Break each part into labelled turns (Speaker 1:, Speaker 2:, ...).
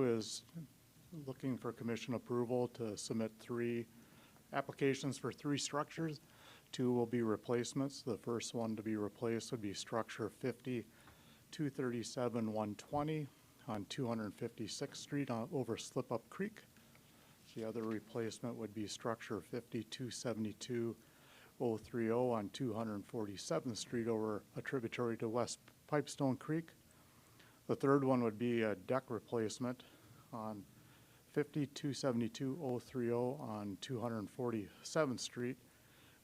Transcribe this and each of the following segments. Speaker 1: is looking for commission approval to submit three applications for three structures. Two will be replacements. The first one to be replaced would be structure 50, 237, 120 on 256th Street uh, over Slip Up Creek. The other replacement would be structure 5272 030 on 247th Street over a tributary to West Pipestone Creek. The third one would be a deck replacement on 5272 030 on 247th Street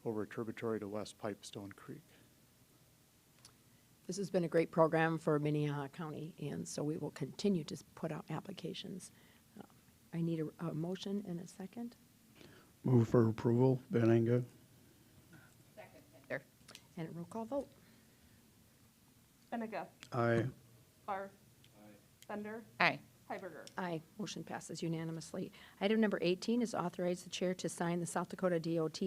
Speaker 1: over a tributary to West Pipestone Creek.
Speaker 2: This has been a great program for Minnehaha County, and so we will continue to s- put out applications. Uh, I need a, a motion and a second.
Speaker 3: Move for approval, Benega.
Speaker 4: There.
Speaker 2: And a roll call vote.
Speaker 5: Benega.
Speaker 3: Aye.
Speaker 5: Barr. Bender.
Speaker 4: Aye.
Speaker 5: Hiberger.
Speaker 2: Aye, motion passes unanimously. Item number 18 is authorize the chair to sign the South Dakota DOT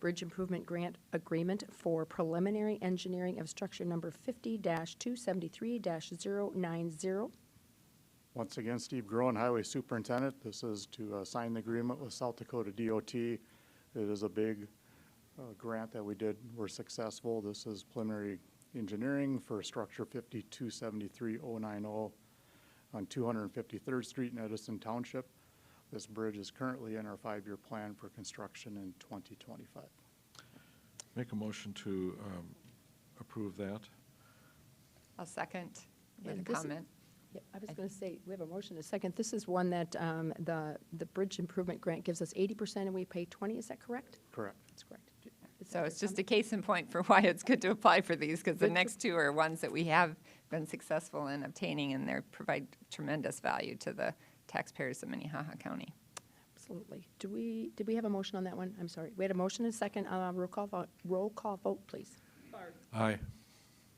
Speaker 2: Bridge Improvement Grant Agreement for preliminary engineering of structure number 50-273-090.
Speaker 1: Once again, Steve Groen, Highway Superintendent. This is to uh, sign the agreement with South Dakota DOT. It is a big uh, grant that we did. We're successful. This is preliminary engineering for structure 5273090 on 253rd Street in Edison Township. This bridge is currently in our five-year plan for construction in 2025.
Speaker 6: Make a motion to um, approve that.
Speaker 4: I'll second with
Speaker 2: And
Speaker 4: a
Speaker 2: this-
Speaker 4: comment.
Speaker 2: Yep, I was
Speaker 4: I-
Speaker 2: going to say, we have a motion and a second. This is one that um, the, the Bridge Improvement Grant gives us 80% and we pay 20, is that correct?
Speaker 1: Correct.
Speaker 2: That's correct. Is that
Speaker 4: So it's
Speaker 2: your
Speaker 4: just a case in point for why it's good to apply for these, because the
Speaker 2: Good to-
Speaker 4: next two are ones that we have been successful in obtaining, and they provide tremendous value to the taxpayers of Minnehaha County.
Speaker 2: comment? Absolutely. Do we, did we have a motion on that one? I'm sorry. We had a motion and a second. Uh, Roll call, vote. roll call vote, please.
Speaker 5: Barr.
Speaker 6: Aye.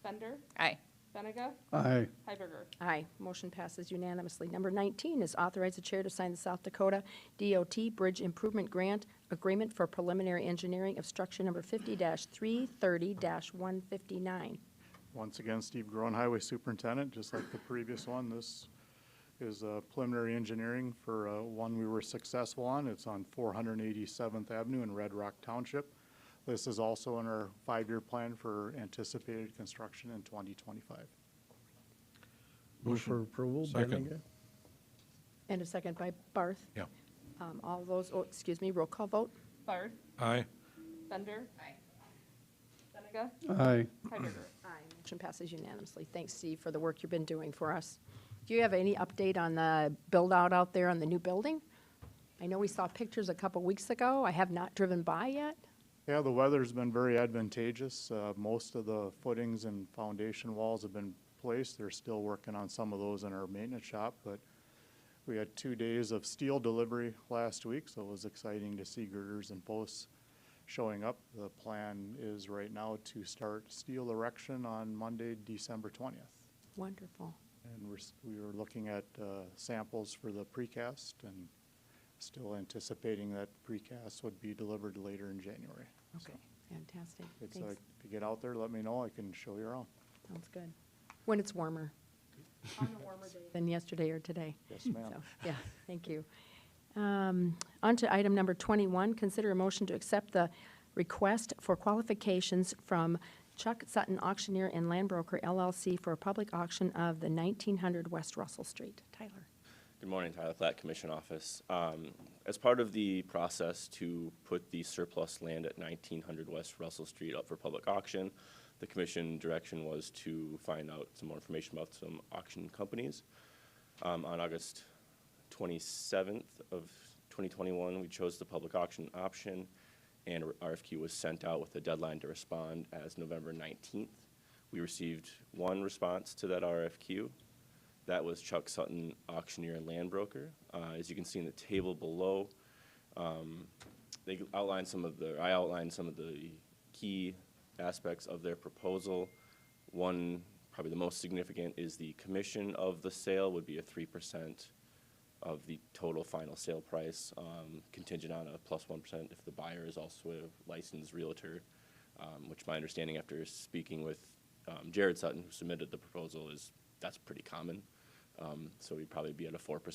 Speaker 5: Bender.
Speaker 4: Aye.
Speaker 5: Benega.
Speaker 3: Aye.
Speaker 5: Hiberger.
Speaker 2: Aye. Motion passes unanimously. Number 19 is authorize the chair to sign the South Dakota DOT Bridge Improvement Grant Agreement for Preliminary Engineering of Structure Number 50-330-159.
Speaker 1: Once again, Steve Groen, Highway Superintendent, just like the previous one, this is uh, preliminary engineering for uh, one we were successful on. It's on 487th Avenue in Red Rock Township. This is also in our five-year plan for anticipated construction in 2025.
Speaker 3: Move for approval,
Speaker 6: Second.
Speaker 3: Benega.
Speaker 2: And a second by Barth.
Speaker 6: Yeah.
Speaker 2: Um, All those, oh, excuse me, roll call vote.
Speaker 5: Barr.
Speaker 6: Aye.
Speaker 5: Bender. Aye. Benega.
Speaker 3: Aye.
Speaker 5: Hiberger.
Speaker 2: Aye. Motion passes unanimously. Thanks, Steve, for the work you've been doing for us. Do you have any update on the build-out out there on the new building? I know we saw pictures a couple weeks ago. I have not driven by yet.
Speaker 1: Yeah, the weather's been very advantageous. Uh, Most of the footings and foundation walls have been placed. They're still working on some of those in our maintenance shop, but we had two days of steel delivery last week, so it was exciting to see girders and posts showing up. The plan is right now to start steel erection on Monday, December twentieth.
Speaker 2: Wonderful.
Speaker 1: And we're, s- we were looking at uh, samples for the precast and still anticipating that precast would be delivered later in January.
Speaker 2: Okay, fantastic.
Speaker 1: It's like,
Speaker 2: Thanks.
Speaker 1: if you get out there, let me know, I can show you around.
Speaker 2: Sounds good. When it's warmer. On a warmer day. Than yesterday or today.
Speaker 1: Yes, ma'am.
Speaker 2: So, Yeah, thank you. Um, On to item number 21, consider a motion to accept the request for qualifications from Chuck Sutton Auctioneer and Land Broker LLC for a public auction of the 1900 West Russell Street. Tyler.
Speaker 7: Good morning, Tyler Platt, Commission Office. Um, As part of the process to put the surplus land at 1900 West Russell Street up for public auction, the commission direction was to find out some more information about some auction companies. Um, On August 27th of 2021, we chose the public auction option, and a RFQ was sent out with a deadline to respond as November 19th. We received one response to that RFQ. That was Chuck Sutton, auctioneer and land broker. Uh, As you can see in the table below, um, they outlined some of the, I outlined some of the key aspects of their proposal. One, probably the most significant, is the commission of the sale would be a three percent of the total final sale price, um, contingent on a plus one percent if the buyer is also a licensed realtor, um, which my understanding after speaking with um, Jared Sutton, who submitted the proposal, is that's pretty common. Um, So we'd probably be at a four percent